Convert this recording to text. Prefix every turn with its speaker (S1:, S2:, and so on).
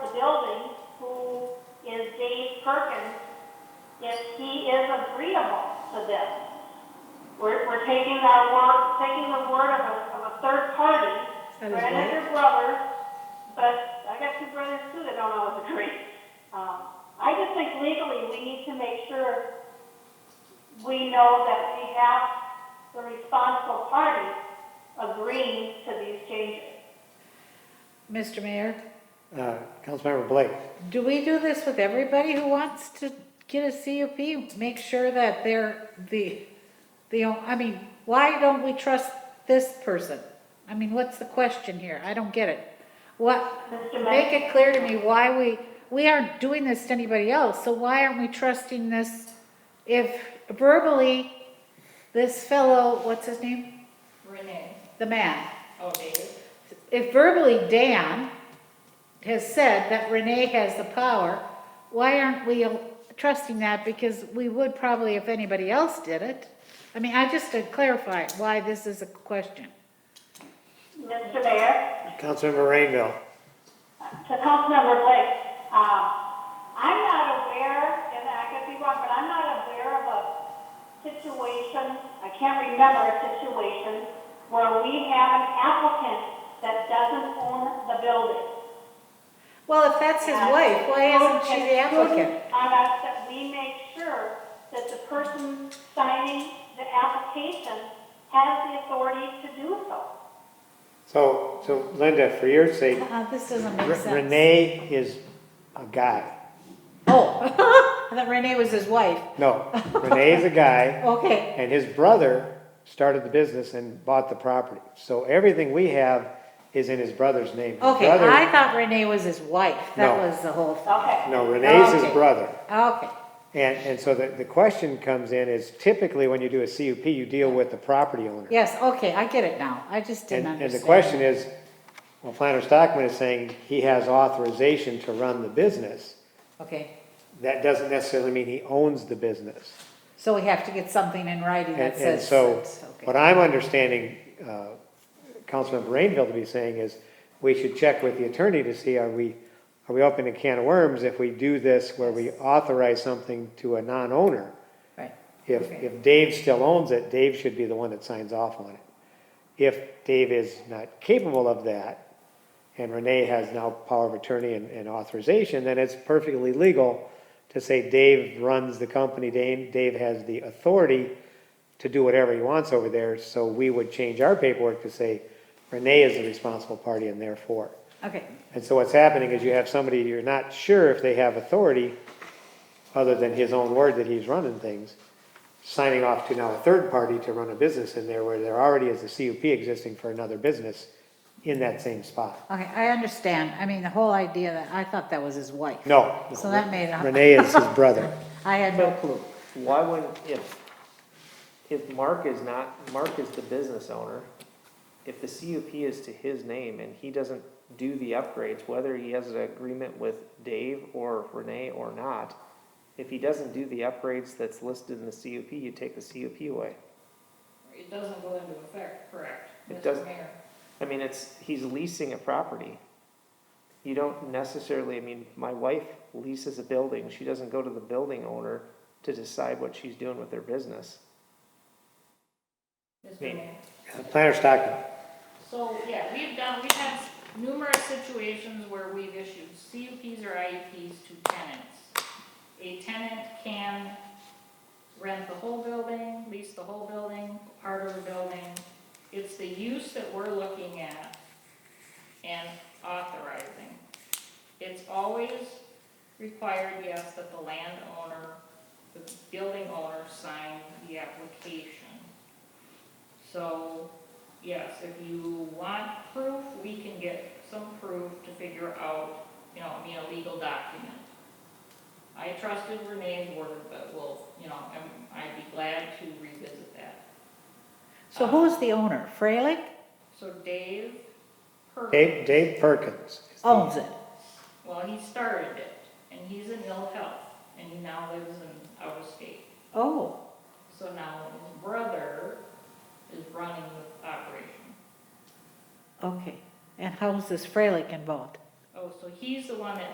S1: Perkins if he is agreeable to this. We're, we're taking that word, taking the word of a, of a third party,
S2: And his
S1: granted your brother, but I got two brothers too that don't always agree. Um, I just think legally, we need to make sure we know that we have the responsible party agreeing to these changes.
S3: Mr. Mayor,
S4: Uh, Councilmember Blake,
S3: do we do this with everybody who wants to get a CUP? Make sure that they're the, the, I mean, why don't we trust this person? I mean, what's the question here? I don't get it. What,
S1: Mr.
S3: make
S1: Mayor,
S3: it clear to me why we, we aren't doing this to anybody else, so why aren't we trusting this? If verbally, this fellow, what's his name?
S5: Renee.
S3: The man.
S5: Oh, David.
S3: if verbally Dan has said that Renee has the power, why aren't we trusting that? Because we would probably if anybody else did it. I mean, I just to clarify why this is a question.
S1: Mr. Mayor.
S4: Councilmember Rainville.
S1: to Councilmember Blake, um, I'm not aware, and I could be wrong, but I'm not aware of a situation, I can't remember a situation where we have an applicant that doesn't own the building.
S3: Well, if that's his wife, why isn't she the applicant?
S1: On us that we make sure that the person signing the application has the authority to do so.
S4: So, so Linda, for your sake,
S3: Uh, this doesn't
S4: R-
S3: make sense.
S4: Renee is a guy.
S3: Oh, I thought Renee was his wife.
S4: No, Renee is a guy,
S3: Okay,
S4: and his brother started the business and bought the property. So everything we have is in his brother's name. His
S3: okay,
S4: brother-
S3: I thought Renee was his wife. That
S4: No.
S3: was the whole thing.
S1: Okay.
S4: No, Renee's his
S3: Okay.
S4: brother.
S3: Okay,
S4: And, and so the, the question comes in is typically when you do a CUP, you deal with the property owner.
S3: yes, okay, I get it now. I just didn't
S4: And, and
S3: understand.
S4: the question is, well, Planner Stockman is saying he has authorization to run the business.
S3: Okay.
S4: That doesn't necessarily mean he owns the business.
S3: So we have to get something in writing
S4: And,
S3: that
S4: and
S3: says.
S4: so,
S3: it's- okay.
S4: what I'm understanding, uh, Councilmember Rainville to be saying is, we should check with the attorney to see, are we, are we opening a can of worms if we do this where we authorize something to a non-owner?
S3: Right.
S4: If,
S3: Okay.
S4: if Dave still owns it, Dave should be the one that signs off on it. If Dave is not capable of that, and Renee has now power of attorney and, and authorization, then it's perfectly legal to say Dave runs the company, Dave, Dave has the authority to do whatever he wants over there, so we would change our paperwork to say Renee is the responsible party and therefore.
S3: Okay,
S4: And so what's happening is you have somebody, you're not sure if they have authority, other than his own word that he's running things, signing off to now a third party to run a business in there where there already is a CUP existing for another business in that same spot.
S3: okay, I understand. I mean, the whole idea that, I thought that was his wife.
S4: No.
S3: So that made it-
S4: Renee is his brother.
S3: I had no clue.
S6: Why wouldn't, if, if Mark is not, Mark is the business owner, if the CUP is to his name and he doesn't do the upgrades, whether he has an agreement with Dave or Renee or not, if he doesn't do the upgrades that's listed in the CUP, you take the CUP away.
S5: It doesn't go into effect, correct?
S6: It
S5: Mr.
S6: doesn't.
S5: Mayor?
S6: I mean, it's, he's leasing a property. You don't necessarily, I mean, my wife leases a building, she doesn't go to the building owner to decide what she's doing with their business.
S5: Mr.
S6: Me.
S5: Mayor.
S4: Planner Stockman.
S7: So, yeah, we've done, we've had numerous situations where we've issued CUPs or IUPs to tenants. A tenant can rent the whole building, lease the whole building, part of the building. It's the use that we're looking at and authorizing. It's always required, yes, that the landowner, the building owner sign the application. So, yes, if you want proof, we can get some proof to figure out, you know, I mean, a legal document. I trusted Renee's word, but we'll, you know, I'm- I'd be glad to revisit that.
S3: So who's the owner? Freilich
S7: So Dave Perkins,
S4: Dave, Dave Perkins.
S3: owns it.
S7: well, he started it, and he's in ill health, and he now lives in out of state.
S3: Oh,
S7: So now his brother is running the operation.
S3: okay. And how's this Freilich involved?
S7: Oh, so he's the one that